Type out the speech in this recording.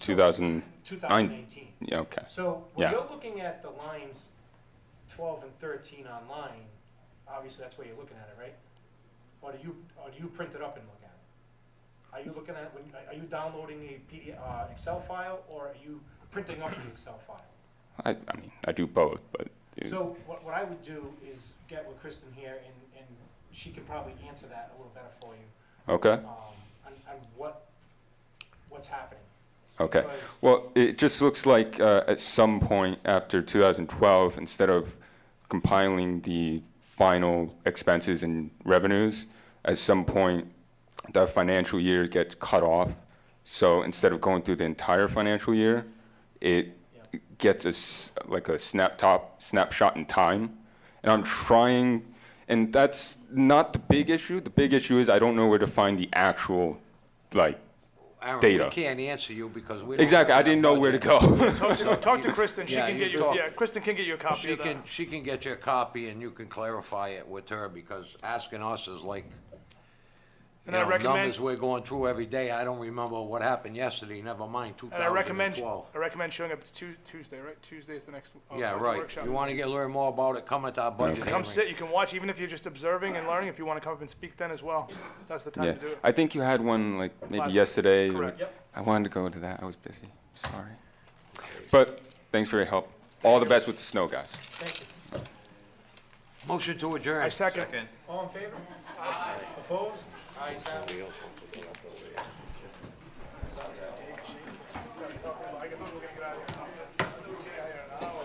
2000, 2018. yeah, okay. So when Yeah. you're looking at the lines 12 and 13 online, obviously that's where you're looking at it, right? Or do you, or do you print it up and look at it? Are you looking at, when- are you downloading a PDF, uh, Excel file, or are you printing up the Excel file? I, I mean, I do both, but it- So what, what I would do is get with Kristen here, and, and she can probably answer that a little better for you, okay, um, on, on what, what's happening. okay. Because- Well, it just looks like uh, at some point after 2012, instead of compiling the final expenses and revenues, at some point the financial year gets cut off. So instead of going through the entire financial year, it Yeah. gets us like a snap top snapshot in time. And I'm trying, and that's not the big issue. The big issue is I don't know where to find the actual like Aaron, Data. we can't answer you because we don't. exactly. I didn't know where to go. Talk to, talk to Kristen. She Yeah, can you get you. talk. Yeah, Kristen can get you a copy She of that. can, she can get you a copy and you can clarify it with her because asking us is like, you And I know, recommend- numbers we're going through every day. I don't remember what happened yesterday, never mind And I recommend 2012. I recommend showing up to Tu- Tuesday, right? Tuesday is the next. uh, Yeah, right. Workshop. You want to get, learn more about it, come at our budget come hearing. sit. You can watch, even if you're just observing and learning. If you want to come up and speak, then as well, that's the time yeah, to do it. I think you had one like maybe Last- yesterday. or- correct. Yep. I wanted to go to that. I was busy. Sorry. But thanks for your help. All the best with the snow, guys. Thank you. Motion to adjourn. I second. All in favor? Opposed? Ayes have it. I can-